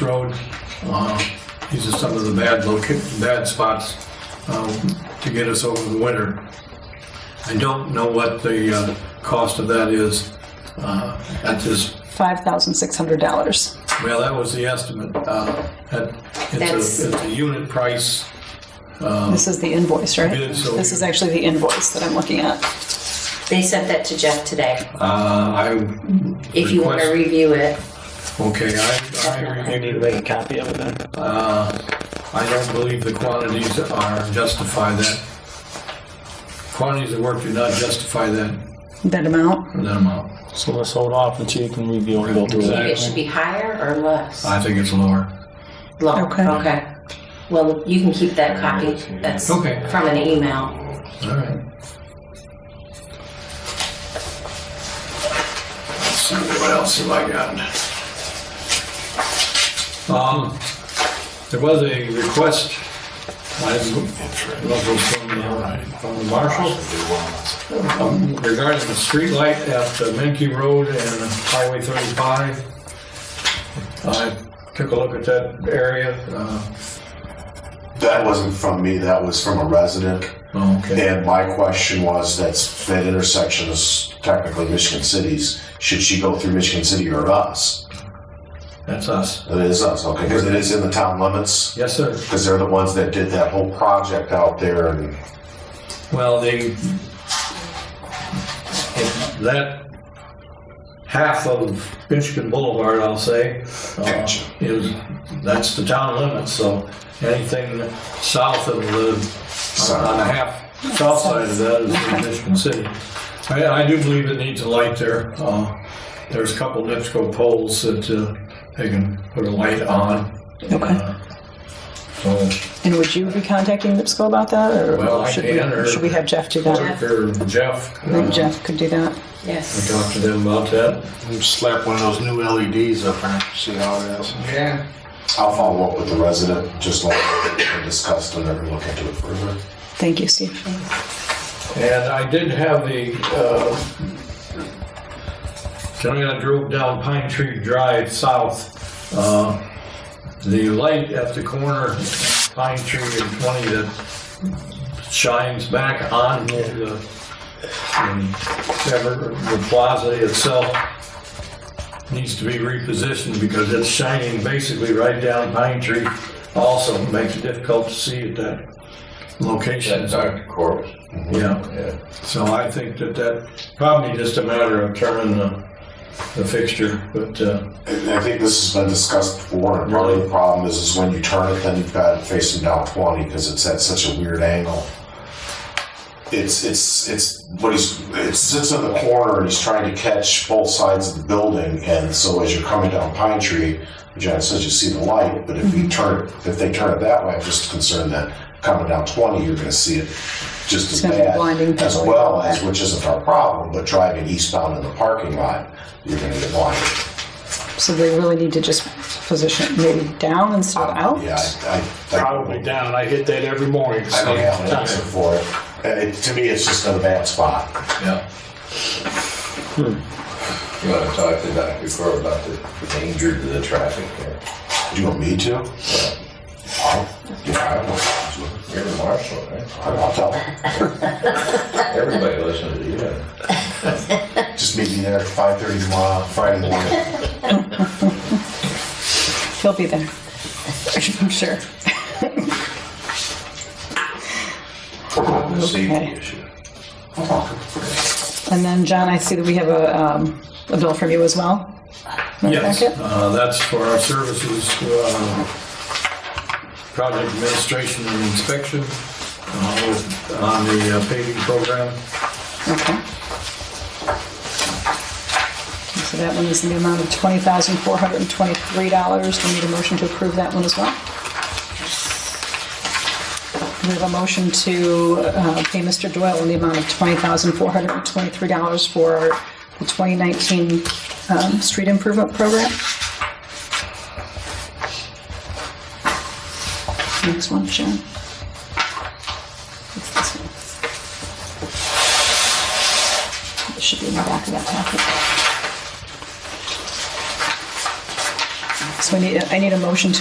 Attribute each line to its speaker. Speaker 1: Road. Uh, These are some of the bad loca, bad spots um, to get us over the winter. I don't know what the uh, cost of that is uh, at this,
Speaker 2: $5,600.
Speaker 1: well, that was the estimate. Uh, that- It's
Speaker 3: That's-
Speaker 1: a, it's a unit price.
Speaker 2: This is the invoice, right?
Speaker 1: It is, so-
Speaker 2: This is actually the invoice that I'm looking at.
Speaker 3: They sent that to Jeff today.
Speaker 1: Uh, I
Speaker 3: If you want to
Speaker 1: request-
Speaker 3: review it,
Speaker 1: Okay, I, I
Speaker 4: You need to make a copy of it then?
Speaker 1: Uh, I don't believe the quantities are, justify that. Quantities of work do not justify that,
Speaker 2: That amount?
Speaker 1: that amount.
Speaker 4: So let's hold off until you can review and go through
Speaker 3: it
Speaker 4: that.
Speaker 3: should be higher or less?
Speaker 1: I think it's lower.
Speaker 3: Low,
Speaker 2: Okay.
Speaker 3: okay. Well, you can keep that copy. That's
Speaker 1: Okay.
Speaker 3: from an email.
Speaker 1: All right. Let's see, what else have I got? Um, there was a request, I didn't- from the- uh, from the marshal um, regarding the streetlight at the Menke Road and Highway 35. I took a look at that area. uh,
Speaker 5: That wasn't from me, that was from a resident.
Speaker 1: Okay.
Speaker 5: And my question was, that's, that intersection is technically Michigan City's. Should she go through Michigan City or us?
Speaker 1: That's us.
Speaker 5: It is us, okay, because it is in the town limits,
Speaker 1: Yes, sir.
Speaker 5: because they're the ones that did that whole project out there and
Speaker 1: Well, they, that half of Michigan Boulevard, I'll say, uh,
Speaker 5: Gotcha.
Speaker 1: is, that's the town limit, so anything south of the, on the half, south side of that is in Michigan City. I, I do believe it needs a light there. Uh, There's a couple NIPSCO poles that uh, they can put a light on.
Speaker 2: Okay.
Speaker 1: Uh, So,
Speaker 2: And would you be contacting NIPSCO about that? or-
Speaker 1: Well,
Speaker 2: or
Speaker 1: I
Speaker 2: should we-
Speaker 1: can, or-
Speaker 2: Should we have Jeff do that?
Speaker 3: Jeff.
Speaker 1: or Jeff.
Speaker 2: I think
Speaker 1: uh,
Speaker 2: Jeff could do that.
Speaker 1: I
Speaker 3: Yes.
Speaker 1: talked to them about that.
Speaker 6: Slap one of those new LEDs up there, see how it is.
Speaker 1: Yeah.
Speaker 5: I'll follow up with the resident, just like we discussed and then we look into it further.
Speaker 2: Thank you, Steve.
Speaker 1: And I did have the, uh, tonight I drove down Pine Tree Drive south. Uh, The light at the corner, of Pine Tree and 20 that shines back on the, whatever, the plaza itself needs to be repositioned because it's shining basically right down Pine Tree. Also makes it difficult to see at that location.
Speaker 5: Mm-hmm.
Speaker 1: Yeah, so I think that that, probably just a matter of turning the, the fixture, but, uh,
Speaker 5: And I think this has been discussed before, and part of the problem is, is when you turn it, then you've got it facing down twenty, because it's at such a weird angle. It's, it's, it's, what he's, it sits in the corner, and he's trying to catch both sides of the building, and so as you're coming down Pine Tree, John says you see the light, but if
Speaker 2: Mm-hmm.
Speaker 5: you turn, it- if they turn it that way, I'm just concerned that coming down twenty, you're gonna see it just as
Speaker 2: It's gonna be blinding
Speaker 5: bad, as
Speaker 2: people.
Speaker 5: well as, which isn't our problem, but driving eastbound in the parking lot, you're gonna get blinded.
Speaker 2: So they really need to just position it maybe down instead of out?
Speaker 5: Yeah, I, I, I,
Speaker 6: Probably down, I hit that every morning.
Speaker 5: I don't have an answer for it. And it, to me, it's just in a bad spot.
Speaker 1: yeah.
Speaker 7: You want to talk to Dr. Corr about the danger to the traffic here?
Speaker 5: Do you want me to? I'll, yeah,
Speaker 7: You're the marshal, right?
Speaker 5: I'll, I'll tell him.
Speaker 7: Everybody listens to you.
Speaker 5: Just meet me there at five thirty tomorrow, Friday morning.
Speaker 2: He'll be there. I'm sure.
Speaker 7: The
Speaker 2: Okay.
Speaker 7: safety issue.
Speaker 2: And then, John, I see that we have a, um, a bill from you as well. in the
Speaker 1: Yes,
Speaker 2: packet.
Speaker 1: uh, that's for our services, uh, project administration and inspection, uh, with- on the uh, paving program.
Speaker 2: Okay. So that one is in the amount of twenty thousand four hundred and twenty-three dollars. We need a motion to approve that one as well. We have a motion to uh, pay Mr. Doyle in the amount of twenty thousand four hundred and twenty-three dollars for the twenty nineteen um, street improvement program. Next one, Sharon. It's this one. It should be in the back of that packet. Next yes, we need, I need a motion to